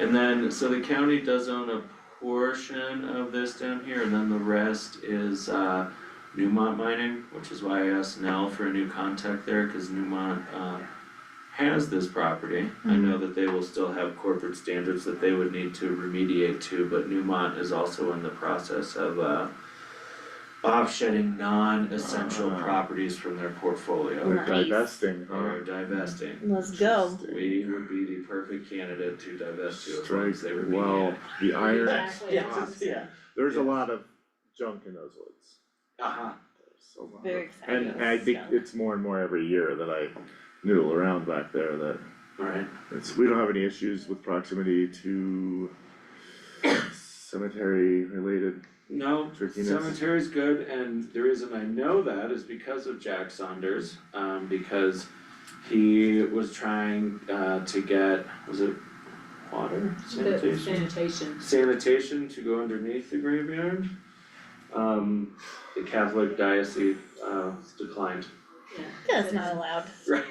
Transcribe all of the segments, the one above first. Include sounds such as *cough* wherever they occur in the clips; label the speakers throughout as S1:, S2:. S1: And then, so the county does own a portion of this down here, and then the rest is uh Newmont Mining, which is why I asked Nell for a new contact there, cause Newmont uh has this property. I know that they will still have corporate standards that they would need to remediate to, but Newmont is also in the process of uh offsetting non-essential
S2: Ah.
S1: properties from their portfolio
S3: Right.
S2: They're divesting,
S1: or
S2: huh?
S1: divesting.
S3: Let's go.
S1: We would be the perfect candidate to divest to as long
S2: Strike,
S1: as they remediate.
S2: well, the iron,
S1: Yes.
S3: Exactly.
S1: Yeah.
S3: Awesome.
S1: Yeah.
S2: there's a lot of junk in those woods.
S1: Uh-huh.
S2: There's a lot
S3: Very
S2: of-
S3: excited
S2: And
S3: about
S2: I
S3: this
S2: think
S3: stuff.
S2: it's more and more every year that I noodle around back there that
S1: Alright.
S2: it's, we don't have any issues with proximity to *coughs* cemetery related,
S1: Oh, No,
S2: Trickiness.
S1: cemetery's good, and the reason I know that is because of Jack Saunders, um, because he was trying, uh, to get, was it water,
S4: The
S1: sanitation?
S4: sanitation.
S1: Sanitation to go underneath the graveyard. Um, the Catholic diocese, uh, declined.
S3: That's not allowed.
S1: Right.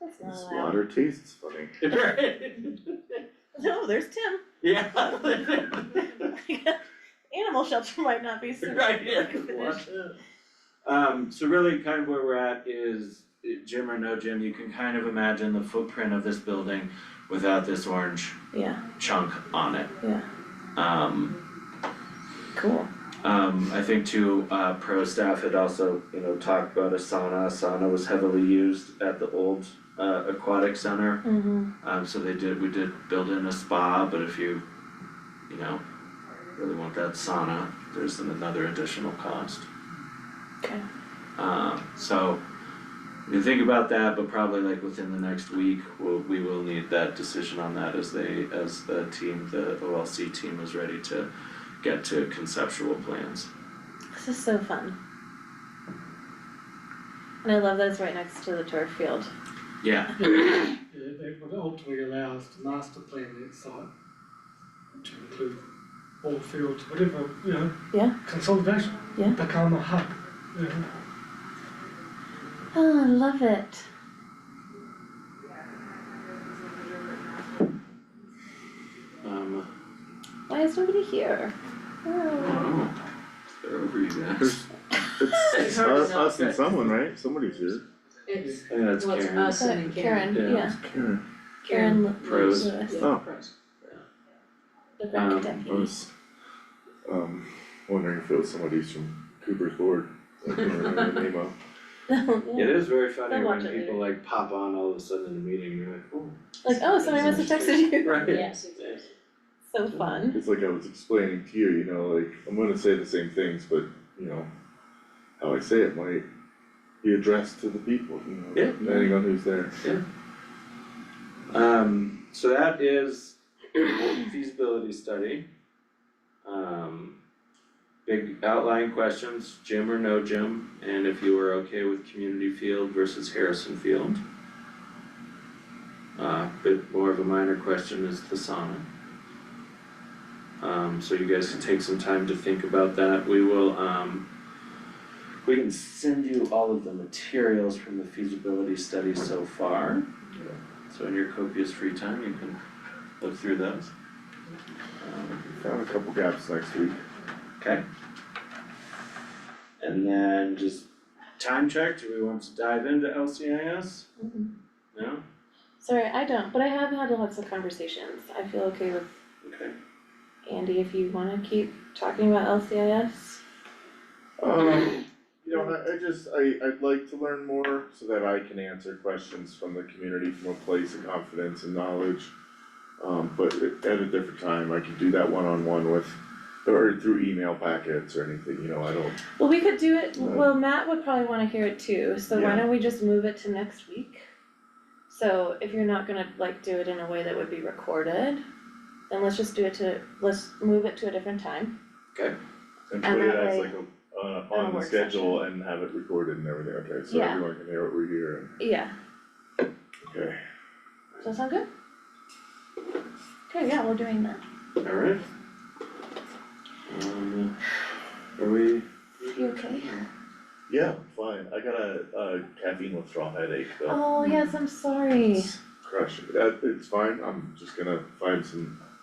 S3: That's not
S2: this
S3: allowed.
S2: water tastes funny.
S3: No, there's Tim. *laughs*
S1: *laughs* Yeah.
S3: Animal shelter might not be soon.
S1: Right, yeah.
S3: Finish.
S1: Um, so really kind of where we're at is, uh, Jim or no Jim, you can kind of imagine the footprint of this building without this orange
S3: Yeah,
S1: chunk on it.
S3: Yeah.
S1: Um,
S3: cool.
S1: um, I think too, uh, pro staff had also, you know, talked about a sauna, A sauna was heavily used at the old, uh, aquatic center.
S3: Mm-hmm.
S1: Um, so they did, we did build in a spa, but if you, you know, really want that sauna, there's an- another additional cost.
S3: Okay.
S1: Um, so, you can think about that, but probably like within the next week, we'll, we will need that decision on that as they, as the team, the OLC team is ready to get to conceptual plans.
S3: This is so fun. And I love that it's right next to the turf field.
S1: Yeah,
S5: It it would ultimately allow us to master plan that site to include all fields, whatever, you know.
S3: Yeah.
S5: Consolidation.
S3: Yeah.
S5: Become a hub, you know.
S3: Oh, I love it.
S1: um,
S3: Why is nobody here?
S1: I
S3: Oh.
S1: don't know. They're over you guys.
S2: There's, it's
S4: *laughs* It's hard
S2: us,
S4: to know
S2: us and
S4: if it's-
S2: someone, right? Somebody's here.
S4: It's,
S1: I think that's
S4: well, it's
S1: Karen.
S4: us and Karen.
S3: Karen,
S1: Yeah.
S3: yeah.
S2: Karen,
S3: Karen Lu-
S1: Pros.
S3: Lewis,
S4: Yeah,
S2: Oh.
S4: pros.
S3: the rec
S1: Um,
S2: I
S3: deputy.
S2: was, um, wondering if it was somebody's from Cooper's Board, I can't remember the name of.
S1: It is very funny
S3: They'll
S1: when
S3: watch it
S1: people like pop on all of a sudden in a meeting, you're like, oh.
S3: *laughs* Like, oh, somebody must have texted you. *laughs*
S1: Right.
S4: Yes, exactly.
S3: So fun.
S2: It's like I was explaining to you, you know, like, I'm gonna say the same things, but, you know, how I say it might be addressed to the people, you know,
S1: Yeah.
S2: depending on who's there.
S1: Um, so that is feasibility study. Um, big outline questions, Jim or no Jim, and if you were okay with community field versus Harrison Field. Uh, bit more of a minor question is the sauna. Um, so you guys can take some time to think about that, we will, um. We can send you all of the materials from the feasibility study so far. So in your copious free time, you can look through those. Um,
S2: Found a couple gaps next week.
S1: Okay. And then just time check, do we want to dive into LCIS?
S3: Mm-mm.
S1: No?
S3: Sorry, I don't, but I have had lots of conversations. I feel okay with
S1: Okay.
S3: Andy, if you wanna keep talking about LCIS.
S2: Um, you know, I, I just, I, I'd like to learn more so that I can answer questions from the community from a place of confidence and knowledge. Um, but at at a different time, I can do that one-on-one with, or through email packets or anything, you know, I don't,
S3: Well, we could do it,
S2: Right.
S3: well, Matt would probably wanna hear it too, so why
S2: Yeah.
S3: don't we just move it to next week? So if you're not gonna like do it in a way that would be recorded, then let's just do it to, let's move it to a different time.
S2: and
S3: And
S2: put it
S3: that
S2: as
S3: way-
S2: like a, uh,
S3: a
S2: on the
S3: work
S2: schedule and have it recorded and everything, okay, so
S3: Yeah.
S2: everyone can hear what we're hearing,
S3: Yeah,
S2: okay.
S3: does that sound good? Okay, yeah, we're doing that.
S1: Alright. Um, are we?
S3: You okay?
S2: Yeah, fine, I got a, a caffeine withdrawal headache though. Uh,
S3: Oh, yes, I'm sorry.
S2: It's crushing, that, it's fine, I'm just gonna find some